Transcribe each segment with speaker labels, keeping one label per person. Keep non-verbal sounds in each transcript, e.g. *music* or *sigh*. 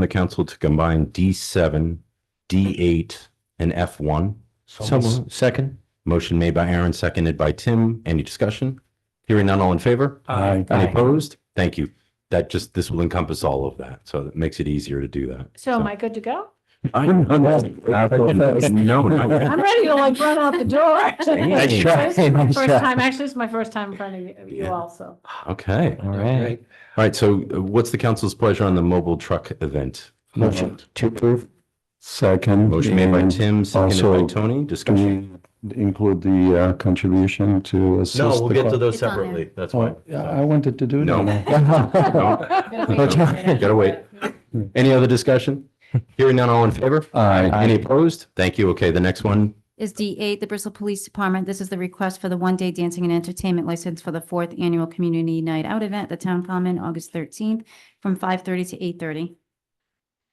Speaker 1: the council to combine D seven, D eight, and F one.
Speaker 2: Someone, second?
Speaker 1: Motion made by Aaron, seconded by Tim. Any discussion? Hearing none, all in favor?
Speaker 2: Aye.
Speaker 1: Any opposed? Thank you. That just, this will encompass all of that, so it makes it easier to do that.
Speaker 3: So am I good
Speaker 1: *laughs*
Speaker 3: to go?
Speaker 1: No, no.
Speaker 3: I'm ready to like run out the door.
Speaker 1: *laughs* Nice
Speaker 2: try, nice
Speaker 3: First
Speaker 2: try.
Speaker 3: time, actually, it's my first time in front of you
Speaker 1: Yeah.
Speaker 3: all, so.
Speaker 1: *laughs* Okay.
Speaker 2: All right.
Speaker 1: All right, so uh, what's the council's pleasure on the mobile truck event?
Speaker 2: Motion to approve? Second.
Speaker 1: Motion made by Tim, seconded by
Speaker 4: also-
Speaker 1: Tony.
Speaker 4: Can
Speaker 1: Discussion?
Speaker 4: we include the uh, contribution to assist?
Speaker 1: No, we'll
Speaker 4: the
Speaker 1: get to
Speaker 4: co-
Speaker 1: those
Speaker 3: It's on there.
Speaker 1: separately. That's why.
Speaker 4: Oh, yeah, I wanted to do
Speaker 1: No.
Speaker 4: that.
Speaker 1: *laughs* *laughs*
Speaker 4: *laughs*
Speaker 1: Oh. Gotta wait.
Speaker 3: Eh,
Speaker 1: Any other discussion? Hearing none, all in favor?
Speaker 4: Aye.
Speaker 1: Any opposed? Thank you. Okay, the next one,
Speaker 5: is D8, the Bristol Police Department. This is the request for the one-day dancing and entertainment license for the fourth annual Community Night Out event, at the Town Common, August 13th, from 5:30 to 8:30.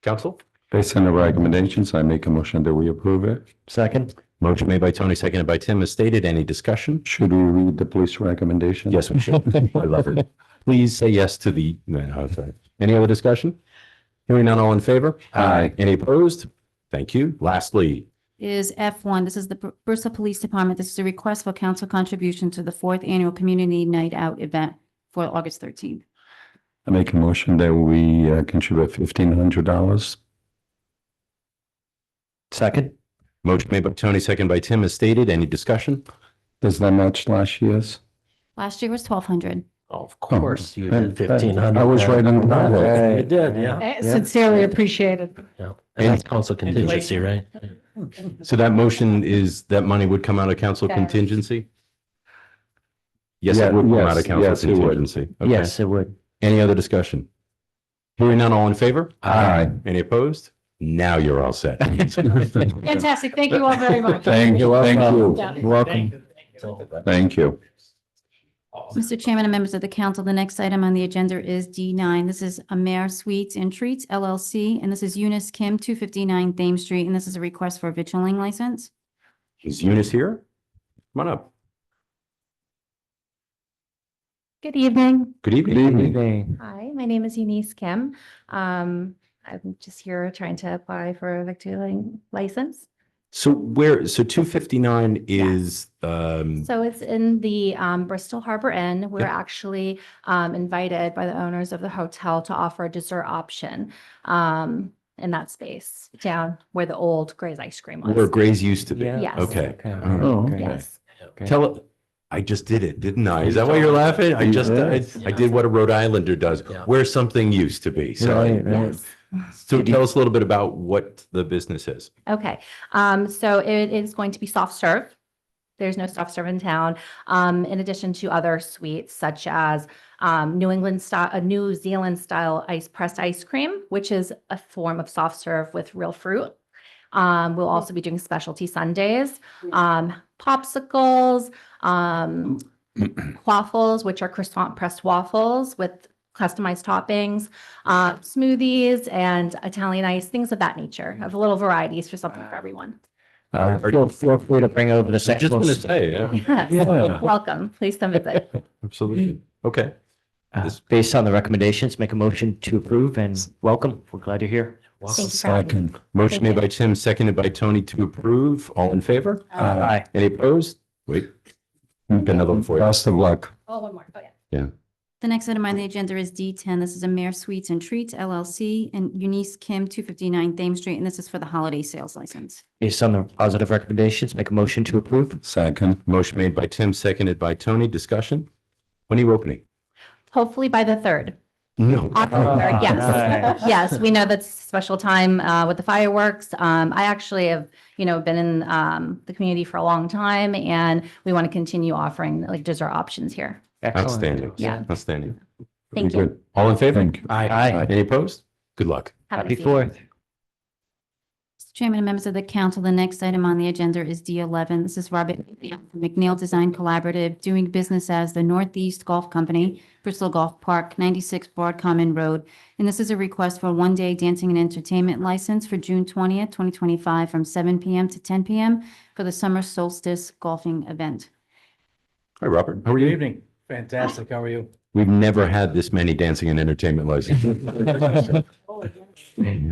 Speaker 1: council?
Speaker 4: Based on the recommendations, I make a motion that we approve it.
Speaker 2: Second?
Speaker 1: Motion made by Tony, seconded by Tim, as stated. Any discussion?
Speaker 4: Should we read the police recommendation?
Speaker 1: Yes, we should.
Speaker 4: *laughs*
Speaker 1: I love it. Please say yes to the, no, no, I'm sorry. Any other discussion? Hearing none, all in favor?
Speaker 4: Aye.
Speaker 1: Any opposed? Thank you. Lastly,
Speaker 5: Is F1, this is the Br- Bristol Police Department. This is a request for council contribution to the fourth annual Community Night Out event for August 13th.
Speaker 4: I make a motion that we uh, contribute fifteen hundred dollars.
Speaker 2: Second?
Speaker 1: motion made by Tony, seconded by Tim, as stated. Any discussion?
Speaker 4: Does that match last year's?
Speaker 5: Last year was 1,200.
Speaker 2: Of
Speaker 4: course,
Speaker 2: you
Speaker 4: did 1,500. I was right on the ball. You
Speaker 2: did, yeah.
Speaker 3: Sincerely appreciated.
Speaker 2: And that's council contingency, right?
Speaker 1: So that motion is that money would come out of council
Speaker 3: Yes.
Speaker 1: contingency? Yes,
Speaker 4: Yeah,
Speaker 1: it would come out of
Speaker 4: yes,
Speaker 1: council
Speaker 4: yes, it would.
Speaker 1: contingency. Okay.
Speaker 2: Yes, it would.
Speaker 1: Any other discussion? Hearing none, all in favor?
Speaker 4: Aye.
Speaker 1: Any opposed? Now you're all set. *laughs*
Speaker 4: *laughs*
Speaker 3: Fantastic. Thank you all very much.
Speaker 4: Thank you, thank
Speaker 3: Yeah.
Speaker 4: you. Welcome. Thank you.
Speaker 5: Mr. Chairman and members of the council, the next item on the agenda is D9. This is Amer Sweets and Treats LLC, and this is Eunice Kim, 259 Thames Street, and this is a request for a vitrilling license.
Speaker 1: Is Eunice here? Come on up.
Speaker 6: Good evening.
Speaker 1: Good evening.
Speaker 6: Hi, my name is Eunice Kim. Um, I'm just here trying to apply for a victualling license.
Speaker 1: So where, so two fifty-nine is, um,
Speaker 6: So it's in the um, Bristol Harbor Inn. We're actually um, invited by the owners of the hotel to offer a dessert option um, in that space down where the old Gray's Ice Cream
Speaker 1: where
Speaker 6: was.
Speaker 1: Gray's used to be.
Speaker 2: Yeah.
Speaker 6: Yes.
Speaker 1: Okay.
Speaker 2: Okay.
Speaker 4: Oh, okay.
Speaker 6: Yes.
Speaker 1: Tell, I just did it, didn't I? Is that why you're laughing? I just, I, I did what a Rhode Islander does,
Speaker 2: Yeah.
Speaker 1: where something used to be. So, I-
Speaker 2: Right, right.
Speaker 6: Yes.
Speaker 1: so tell us a little bit about what the business is.
Speaker 6: Okay, um, so it is going to be soft serve. There's no soft serve in town. Um, in addition to other sweets such as um, New England style, a New Zealand style ice pressed ice cream, which is a form of soft serve with real fruit. Um, we'll also be doing specialty sundaes, um, popsicles, um, waffles, which are croissant pressed waffles with customized toppings, uh, smoothies and Italian ice, things of that nature, of little varieties for something for everyone. *laughs*
Speaker 2: Uh, Feel feel free to bring over the
Speaker 1: I'm just gonna
Speaker 2: sections.
Speaker 1: say, yeah,
Speaker 6: Yes. Welcome, please come visit.
Speaker 1: absolutely. Okay.
Speaker 2: Uh, Based on the recommendations, make a motion to approve and welcome. We're glad you're here.
Speaker 6: Thank you for having me.
Speaker 1: Motion made
Speaker 6: Thank you.
Speaker 1: by Tim, seconded by Tony to approve. All in favor?
Speaker 4: Aye.
Speaker 2: Aye.
Speaker 1: Any opposed? Wait, another one for you.
Speaker 4: Best of luck.
Speaker 6: Oh, one more, oh, yeah.
Speaker 5: The next item on the agenda is D10. This is Amer Sweets and Treats LLC, and Eunice Kim, 259 Thames Street, and this is for the holiday sales license.
Speaker 2: Based on the positive recommendations, make a motion to approve.
Speaker 4: Second.
Speaker 1: Motion made by Tim, seconded by Tony. Discussion? When are you opening?
Speaker 6: Hopefully by the third.
Speaker 1: No.
Speaker 6: October third, yes.
Speaker 2: nice.
Speaker 6: Yes, we know that's a special time uh, with the fireworks. Um, I actually have, you know, been in um, the community for a long time and we want to continue offering like dessert options here.
Speaker 2: Excellent.
Speaker 1: Outstanding.
Speaker 6: Yeah.
Speaker 1: Outstanding.
Speaker 6: Thank you.
Speaker 1: All in favor?
Speaker 4: Thank you.
Speaker 2: Aye.
Speaker 1: Any opposed? Good luck.
Speaker 6: Have a
Speaker 2: Happy
Speaker 6: nice evening.
Speaker 2: fourth.
Speaker 5: Mr. Chairman and members of the council, the next item on the agenda is D11. This is Robert McNeil Design Collaborative, doing business as the Northeast Golf Company, Bristol Golf Park, 96 Broad Common Road. And this is a request for a one-day dancing and entertainment license for June 20th, 2025, from 7 PM to 10 PM for the Summer Solstice Golfing Event.
Speaker 1: Hi, Robert. How are you?
Speaker 7: Good evening. Fantastic. How are you?
Speaker 6: *laughs*
Speaker 1: We've never had this many dancing and entertainment licenses.
Speaker 3: Holy.